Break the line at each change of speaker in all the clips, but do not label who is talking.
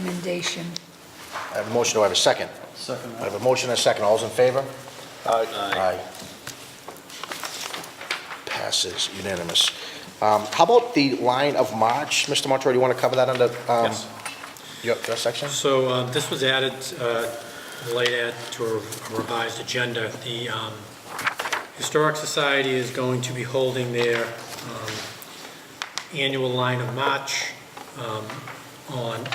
recommendation.
I have a motion, do I have a second?
Second.
I have a motion and a second, all those in favor? Aye. Passes unanimous. Um, How about the line of march, Mr. Montori, do you want to cover that under um,
Yes.
your your section?
So uh, this was added, uh, late add to a revised agenda. The um, Historic Society is going to be holding their um, annual line of march um, on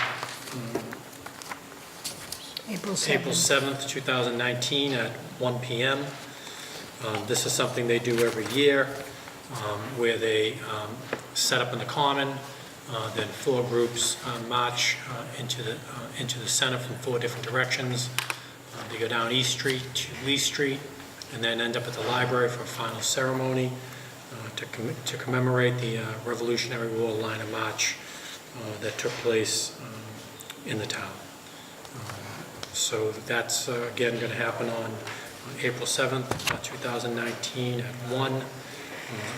April 7th.
April 7th, 2019, at 1 PM. Um, This is something they do every year, um, where they um, set up in the common, uh, then four groups uh, march uh, into the, uh, into the center from four different directions. Uh, They go down East Street to Lee Street, and then end up at the library for a final ceremony uh, to comm- to commemorate the uh, Revolutionary War line of march uh, that took place um, in the town. So that's, uh, again, going to happen on on April 7th, uh, 2019, at 1. Uh,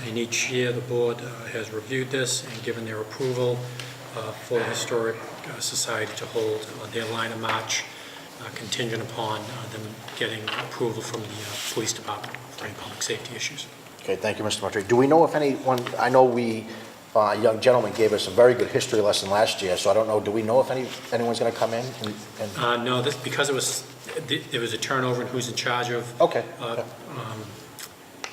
And each year, the board uh, has reviewed this and given their approval uh, for the Historic uh, Society to hold uh, their line of march uh, contingent upon uh, them getting approval from the uh, police department for any public safety issues.
Okay, thank you, Mr. Montori. Do we know if anyone, I know we, uh, a young gentleman gave us a very good history lesson last year, so I don't know, do we know if any anyone's going to come in? and- and-
Uh, No, this, because it was, th- there was a turnover in who's in charge of
Okay,
uh, um,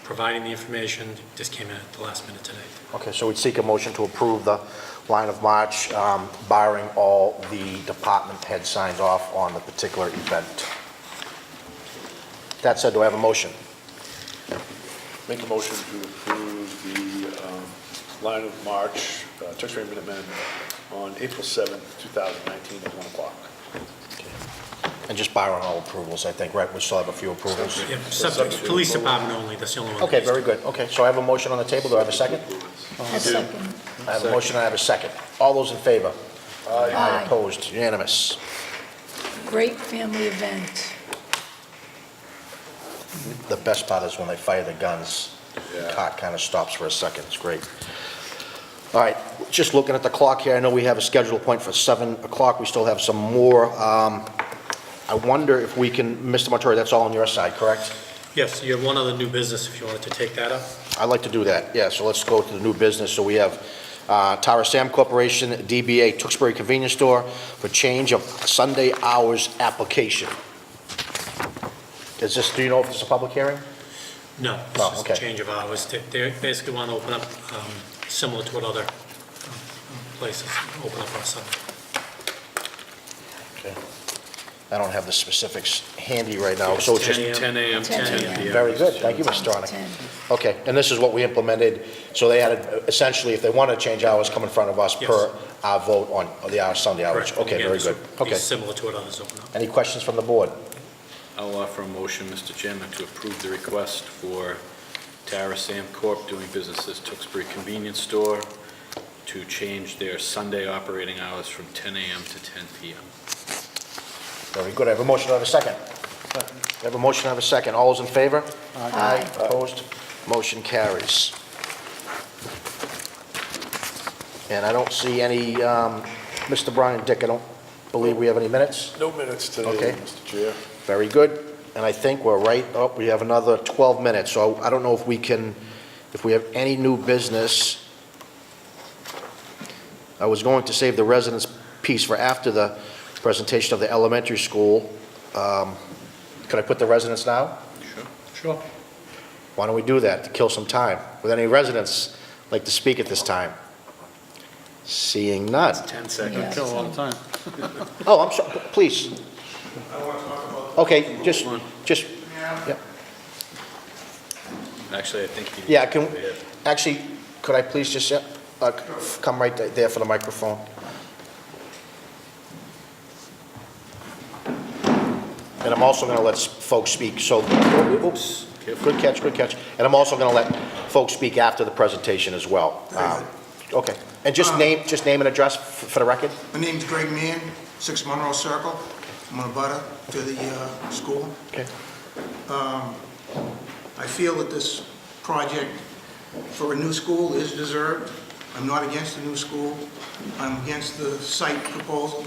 providing the information, this came in at the last minute today.
okay, so we'd seek a motion to approve the line of march um, barring all the department head signs off on the particular event. That said, do I have a motion?
Make a motion to approve the um, line of march, uh, Tewksbury Minutemen, on April 7th, 2019, at 1 o'clock.
And just barring all approvals, I think, right? We still have a few approvals.
Yeah, subject, police department only, that's the only one. that
Okay,
needs to-
very good. Okay, so I have a motion on the table. Do I have a second?
A second.
I have a motion, I have a second. All those in favor?
Aye.
Opposed? Unanimous.
Great family event.
The best part is when they fire the guns, the
Yeah.
cot kind of stops for a second. It's great. All right, just looking at the clock here, I know we have a scheduled point for 7 o'clock. We still have some more. Um, I wonder if we can, Mr. Montori, that's all on your side, correct?
Yes, you have one other new business if you wanted to take that up.
I'd like to do that, yeah, so let's go to the new business. So we have uh, Tara Sam Corporation, DBA Tewksbury Convenience Store, for change of Sunday hours application. Is this, do you know if this is a public hearing?
No,
No,
this is a
Oh, okay.
change of hours. They- They basically want to open up, um, similar to what other um, places open up on Sunday.
Okay. I don't have the specifics handy right now, Oh, so it's just...
10
10 a.m. to
10
10 p.m.
Very good, thank you, Mr. Stronach.
Ten.
Okay, and this is what we implemented, so they had, uh, essentially, if they want to change hours, come in front of us
Yes.
per our vote on the hour, Sunday hours.
Correct.
Okay,
Again,
very
this
good,
would be
okay.
Similar to what others open up.
Any questions from the board?
I'll offer a motion, Mr. Chairman, to approve the request for Tara Sam Corp. doing business as Tewksbury Convenience Store to change their Sunday operating hours from 10 a.m. to 10 p.m.
Very good. I have a motion, I have a second. I have a motion, I have a second. All those in favor?
Aye.
Opposed? Motion carries. And I don't see any, um, Mr. Brian Dick, I don't believe we have any minutes.
No minutes
Okay.
today, Mr. Chair.
Very good. And I think we're right, oh, we have another 12 minutes, so I don't know if we can, if we have any new business. I was going to save the residents piece for after the presentation of the elementary school. Um, Could I put the residents now?
Sure.
Why don't we do that, to kill some time? Would any residents like to speak at this time? Seeing none.
10
Yeah,
seconds.
so-
Oh, I'm sorry, please. Okay, just, just, yeah.
Actually, I think you...
Yeah, can, actually, could I please just, uh, uh, come right there for the microphone? And I'm also going to let folks speak, so, oops, good catch, good catch. And I'm also going to let folks speak after the presentation as well. Um, Okay, and just name, just name and address f- for the record?
My name's Greg Mann, 6 Monroe Circle. I'm a butter to the uh, school.
Okay.
I feel that this project for a new school is deserved. I'm not against a new school. I'm against the site proposal.